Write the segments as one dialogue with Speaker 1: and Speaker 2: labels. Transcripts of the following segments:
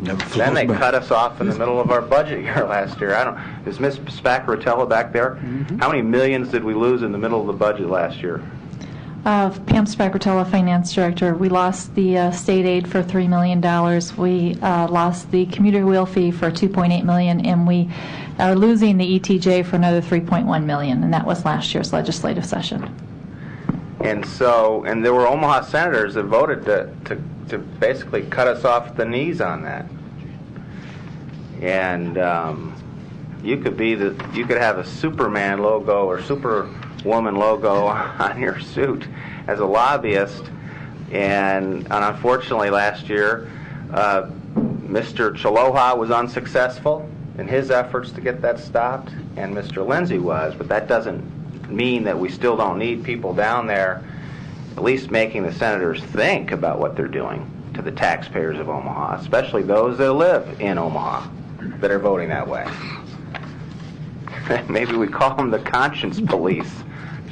Speaker 1: Then they cut us off in the middle of our budget year last year. I don't, is Ms. Spacarotella back there? How many millions did we lose in the middle of the budget last year?
Speaker 2: Uh, Pam Spagatella, Finance Director. We lost the uh, state aid for $3 million. We uh, lost the commuter wheel fee for $2.8 million, and we are losing the ETJ for another $3.1 million, and that was last year's legislative session.
Speaker 1: And so, and there were Omaha senators that voted to, to, to basically cut us off the knees on that. And um, you could be the, you could have a Superman logo or Superwoman logo on your suit as a lobbyist. And, and unfortunately, last year, uh, Mr. Chaloha was unsuccessful in his efforts to get that stopped, and Mr. Lindsay was. But that doesn't mean that we still don't need people down there, at least making the senators think about what they're doing to the taxpayers of Omaha, especially those that live in Omaha that are voting that way. Maybe we call them the conscience police.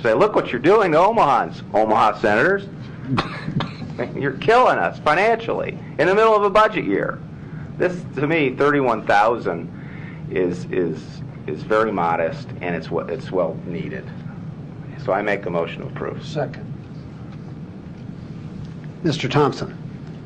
Speaker 1: Say, look what you're doing to Omahans, Omaha senators. You're killing us financially in the middle of a budget year. This, to me, thirty-one thousand is is is very modest, and it's what it's well needed. So I make a motion to approve.
Speaker 3: Second. Mr. Thompson?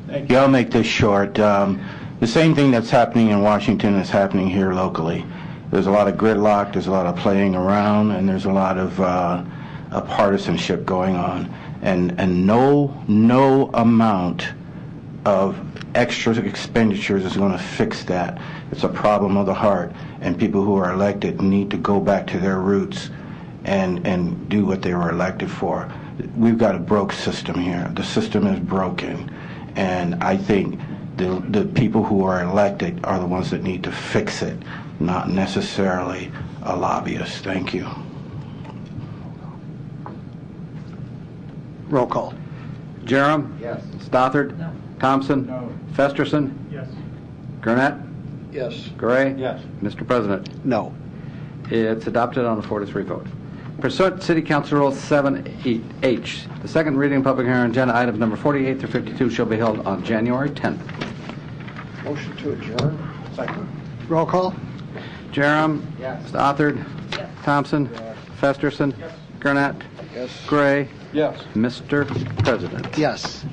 Speaker 4: Thank you. I'll make this short. Um, The same thing that's happening in Washington is happening here locally. There's a lot of gridlock, there's a lot of playing around, and there's a lot of uh, uh, partisanship going on. And, and no, no amount of extra expenditures is going to fix that. It's a problem of the heart, and people who are elected need to go back to their roots and, and do what they were elected for. We've got a broke system here. The system is broken, and I think the, the people who are elected are the ones that need to fix it, not necessarily a lobbyist. Thank you.
Speaker 3: Roll call.
Speaker 5: Jerem?
Speaker 1: Yes.
Speaker 5: Stothard? Thompson? Festerson? Yes. Gurnett?
Speaker 3: Yes.
Speaker 5: Gray?
Speaker 3: Yes.
Speaker 5: Mr. President,
Speaker 3: No.
Speaker 5: it's adopted on a four to three vote. Pursuant to City Council Rule 7H, the second reading and public hearing on agenda items number 48 through 52 shall be held on January 10th.
Speaker 3: Motion to adjourn. Second. Roll call?
Speaker 5: Jerem?
Speaker 3: Yes.
Speaker 5: Stothard? Thompson? Festerson? Gurnett?
Speaker 3: Yes.
Speaker 5: Gray?
Speaker 3: Yes.
Speaker 5: Mr. President.
Speaker 3: Yes.